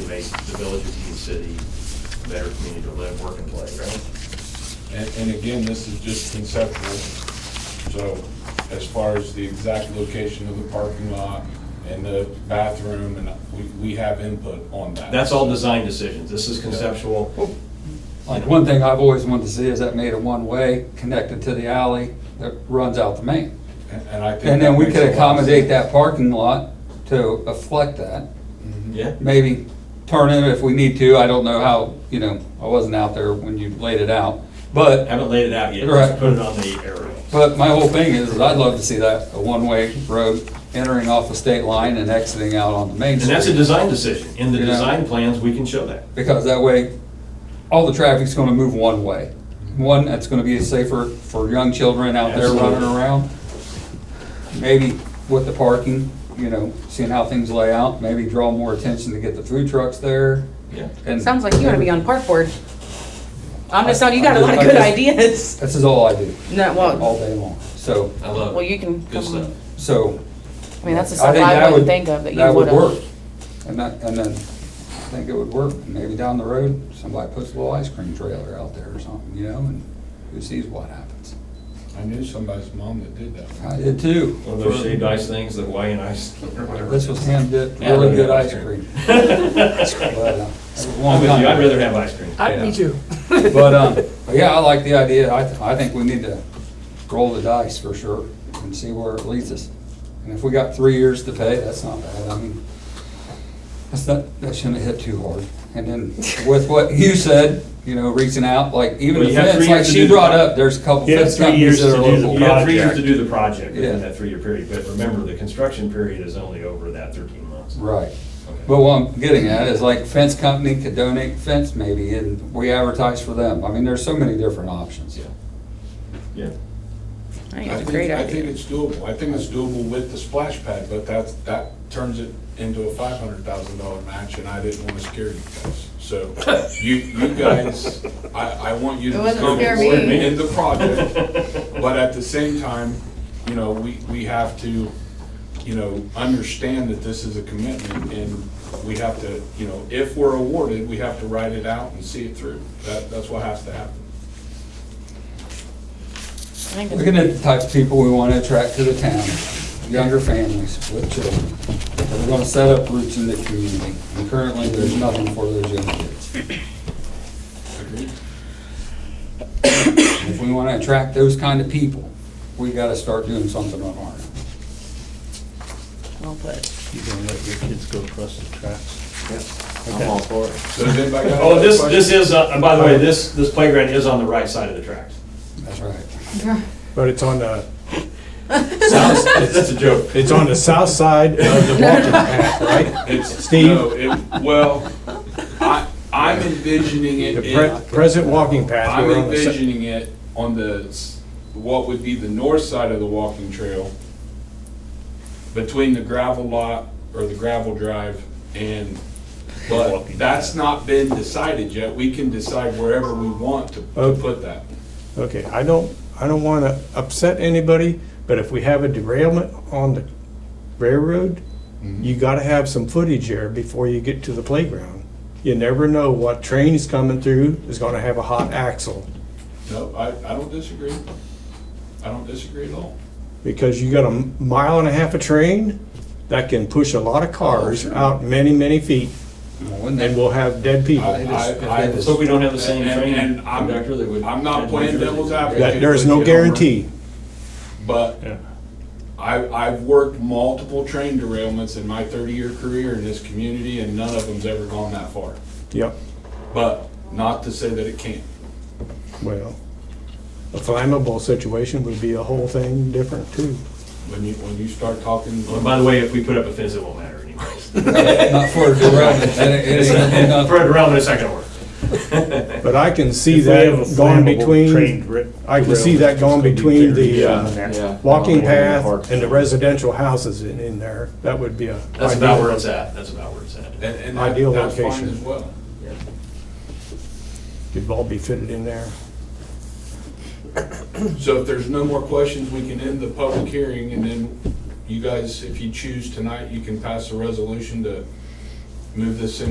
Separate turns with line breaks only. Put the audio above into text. make the village of Union City a better community to live, work, and play, right?
And, and again, this is just conceptual, so as far as the exact location of the parking lot and the bathroom, and we, we have input on that.
That's all design decisions. This is conceptual.
Like, one thing I've always wanted to see is that made a one-way connected to the alley that runs out the main.
And and I think.
And then
that
we
makes
could
a lot of sense.
accommodate that parking lot to reflect that.
Yeah?
Maybe turn it if we need to, I don't know how, you know, I wasn't out there when you laid it out. But,
Haven't laid it out yet.
Right.
Just put it on the aerial.
but my whole thing is, is I'd love to see that, a one-way road entering off the state line and exiting out on the main
And
street.
that's a design decision. In the
You know.
design plans, we can show that.
because that way, all the traffic's gonna move one way. One, that's gonna be safer for young children out there running
Absolutely.
around. Maybe with the parking, you know, seeing how things lay out, maybe draw more attention to get the food trucks there.
Yeah.
And
Sounds like you want to be on park board. I'm just telling you, you got a lot of good ideas.
This is all I do,
No, well,
all day long, so,
I love it.
well, you can.
Good stuff.
so.
I mean, that's the
I
stuff
think
I
that
wouldn't think of that you
would
would
work.
have.
And that, and then, I think it would work, maybe down the road, somebody puts a little ice cream trailer out there or something, you know, and who sees what happens.
I knew somebody's mom that did that.
I did too.
One of those shaved ice things, the Hawaiian ice or whatever.
This was hand dipped,
Yeah,
really good
I love
ice cream. But,
I'm
uh, that was a long
with you. I'd
time.
rather have ice cream.
I, me too.
But, um, but yeah, I like the idea. I, th- I think we need to roll the dice for sure and see where it leads us. And if we got three years to pay, that's not bad. I mean, that's not, that shouldn't hit too hard. And then with what you said, you know, reaching out, like even
Well,
the
you have three
fence,
years to
like she
do the-
brought up, there's a couple
You have
fence
three
companies
years
that are
to do the
local.
You have three years to
project.
do the project within
Yeah.
that three-year period, but remember, the construction period is only over that thirteen months.
Right.
Okay.
But what I'm getting at is like fence company could donate fence maybe and we advertise for them. I mean, there's so many different options.
Yeah. Yeah.
I think it's
I
a great
think- I think
idea.
it's doable, I think it's doable with the splash pad, but that's, that turns it into a five hundred thousand dollar match, and I didn't wanna scare you guys. So, you, you guys, I, I want you to
It wasn't
come
scare
forward
me.
in the project, but at the same time, you know, we, we have to, you know, understand that this is a commitment, and we have to, you know, if we're awarded, we have to write it out and see it through, that, that's what has to happen.
I think it's-
Looking at the type of people we want to attract to the town, younger families with children. that are going to set up roots in the community. And currently, there's nothing for those young kids.
Agreed?
If we want to attract those kind of people, we got to start doing something on our end.
Well put.
You gonna let your kids go across the tracks?
So does anybody got
Oh,
other
this,
questions?
this is, uh, and by the way, this, this playground is on the right side of the tracks.
That's right.
But it's on the,
Sounds, that's a joke.
it's on the south side of the walking path, right?
It's,
Steve?
no, it, well, I, I'm envisioning it,
The
in-
pre- present walking path.
I'm
we're on the sou-
envisioning it on the, s- what would be the north side of the walking trail, between the gravel lot, or the gravel drive, and, but
Walking
that's
path.
not been decided yet, we can decide wherever we want to to
Okay.
put that.
Okay, I don't, I don't wanna upset anybody, but if we have a derailment on the railroad, you gotta have some footage there before you get to the playground. You never know what train is coming through, is gonna have a hot axle.
No, I, I don't disagree, I don't disagree at all.
because you got a mile and a half of train that can push a lot of cars out many, many feet,
Well, wouldn't
and
that-
we'll have dead people.
I- I-
If
Let's hope we don't have the same
And-
train
and I'm-
conductor that would.
I'm not playing devil's advocate.
That, there's no guarantee.
But
Yeah.
I, I've worked multiple train derailments in my thirty-year career in this community, and none of them's ever gone that far.
Yep,
But not to say that it can't.
well, a flammable situation would be a whole thing different too.
When you, when you start talking,
Well, By the way, if we put up a fence, it won't matter anyways.
Not for a derailment, and it- it ain't gonna be nothing.
Spread around in a second order.
But I can see
If we have a
that going
flammable train
between,
dri-
I can see
derailment,
that going
it's gonna be
between
very
the, uh,
down there.
walking
Along the
path
park.
and the residential houses in, in there, that would be a.
That's about
ideal.
where it's at. That's about where it's at.
and, and that-
Ideal
that's fine
location.
as well.
Could all be fitted in there.
So if there's no more questions, we can end the public hearing, and then you guys, if you choose tonight, you can pass a resolution to move this in